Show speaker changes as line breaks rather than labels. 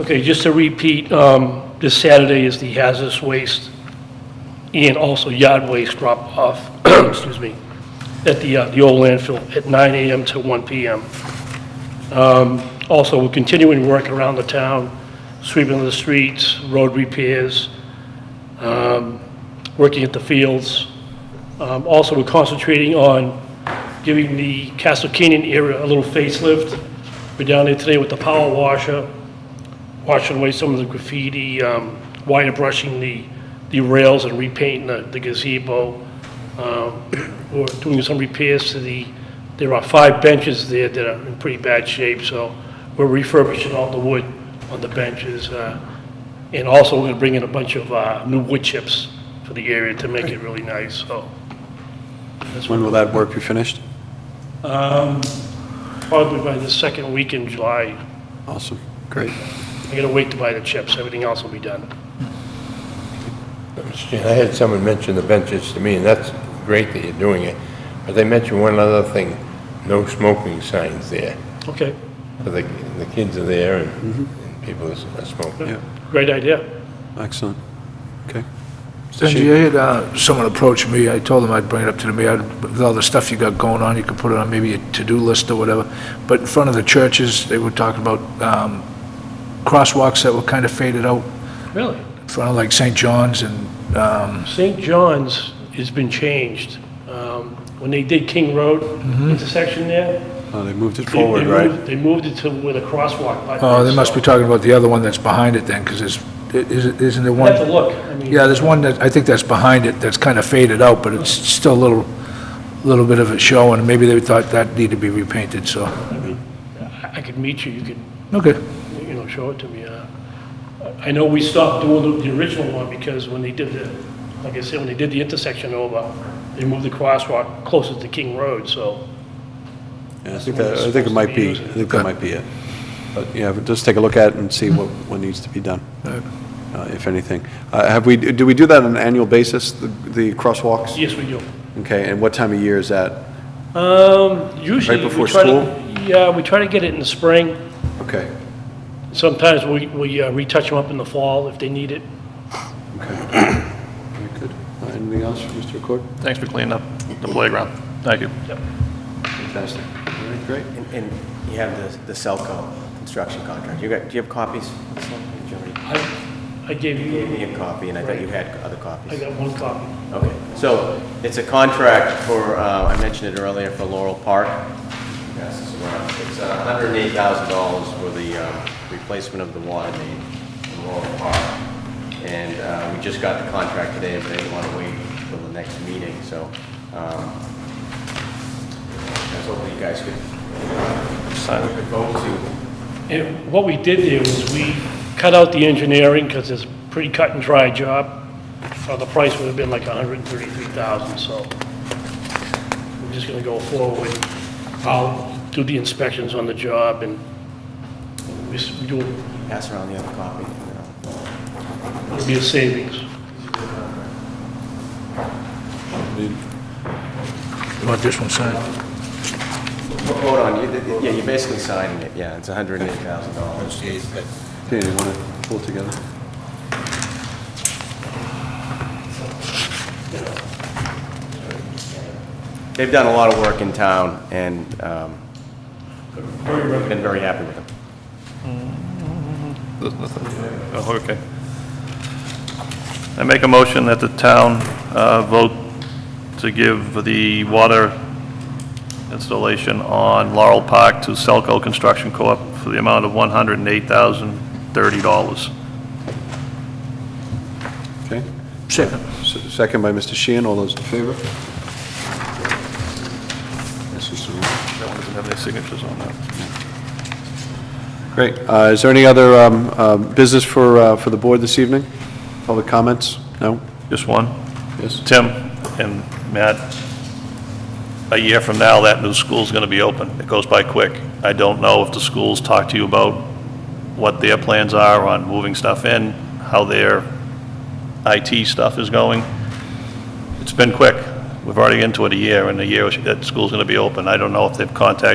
Okay, just to repeat, um, this Saturday is the hazardous waste and also yard waste drop-off, excuse me, at the, uh, the old landfill at 9 AM to 1 PM. Um, Also, we're continuing work around the town, sweeping the streets, road repairs, um, working at the fields. Um, Also, we're concentrating on giving the Castle Canyon area a little facelift. We're down there today with the power washer, washing away some of the graffiti, um, wire brushing the, the rails and repainting the the gazebo. Um, We're doing some repairs to the, there are five benches there that are in pretty bad shape, so we're refurbishing all the wood on the benches. uh, And also, we're gonna bring in a bunch of, uh, new wood chips for the area to make it really nice, so.
When will that work be finished?
Probably by the second week in July,
Awesome, great.
I gotta wait to buy the chips, everything else will be done.
Mr. Chairman, I had someone mention the benches to me, and that's great that you're doing it, but they mentioned one other thing, no smoking signs there,
Okay,
for the, the kids are there and and people are smoking.
Yeah,
great idea.
excellent. Okay.
Sanjay, I had uh, someone approach me, I told them I'd bring it up to the mayor, with all the stuff you got going on, you could put it on maybe a to-do list or whatever, but in front of the churches, they were talking about um, crosswalks that were kind of faded out,
Really?
in front of like St. John's and, um,
St. John's has been changed. Um, When they did King Road
Mm-hmm.
intersection there.
Uh, They moved it
they- they
forward,
moved-
right?
They moved it to where the crosswalk. button
oh, they
is,
must be
so-
talking about the other one that's behind it then, because there's, is- isn't there
I'd have to
one?
look. I mean,
Yeah, there's one that, I think that's behind it, that's kind of faded out, but it's still a little, little bit of a show, and maybe they thought that needed to be repainted, so,
I- I could meet you, you could,
okay.
you know, show it to me. uh, I I know we stopped doing the- the original one because when they did the, like I said, when they did the intersection over, they moved the crosswalk closer to King Road, so.
Yeah, I think that, I think it might be, I think that might be it. But, yeah, but just take a look at it and see what, what needs to be done, uh, if anything. Uh, Have we, do we do that on an annual basis, the the crosswalks?
Yes, we do.
Okay, and what time of year is that?
Um, Usually. we
before
try to-
school?
Yeah, we try to get it in the spring.
Okay,
Sometimes we, we uh, retouch them up in the fall if they need it.
okay. Very good. Uh, Anything else for Mr. Accord?
Thanks for cleaning up the playground. Thank you.
Fantastic. All right, great.
And- And you have the the Celco construction contract. You got, do you have copies? Did you already-
I, I gave
You gave
you,
me a copy, and I thought you had other copies.
I got one copy.
Okay, so it's a contract for, uh, I mentioned it earlier, for Laurel Park. Yes, it's around- It's uh, hundred and eight thousand dollars for the um, replacement of the water main in Laurel Park. And uh, we just got the contract today, but they didn't want to wait until the next meeting, so um, I was hoping you guys could,
Sign
could vote to
And what we did there was we cut out the engineering because it's a pretty cut and dry job. Uh, The price would have been like $133,000, so we're just going to go forward. I'll do the inspections on the job and we s- we do,
pass around the other copy.
it'll be a savings.
You want this one signed?
Vote on, you- yeah, you're basically signing it, yeah, it's hundred and eight thousand dollars.
Okay, you want to pull it together?
They've done a lot of work in town, and um, been very happy with them.
There's nothing. Oh, okay. I make a motion that the town uh, vote to give the water installation on Laurel Park to Selco Construction Corp. for the amount of $108,030.
Okay.
Second.
S- Second by Mr. Sheehan, all those in favor? This is the one.
That one doesn't have any signatures on that.
Great. Uh, Is there any other um, uh, business for, uh, for the board this evening? Public comments? No?
Just one?
Yes?
Tim and Matt, a year from now, that new school's going to be open. It goes by quick. I don't know if the schools talk to you about what their plans are on moving stuff in, how their IT stuff is going. It's been quick. We've already into it a year, and a year, that school's going to be open. I don't know if they've contacted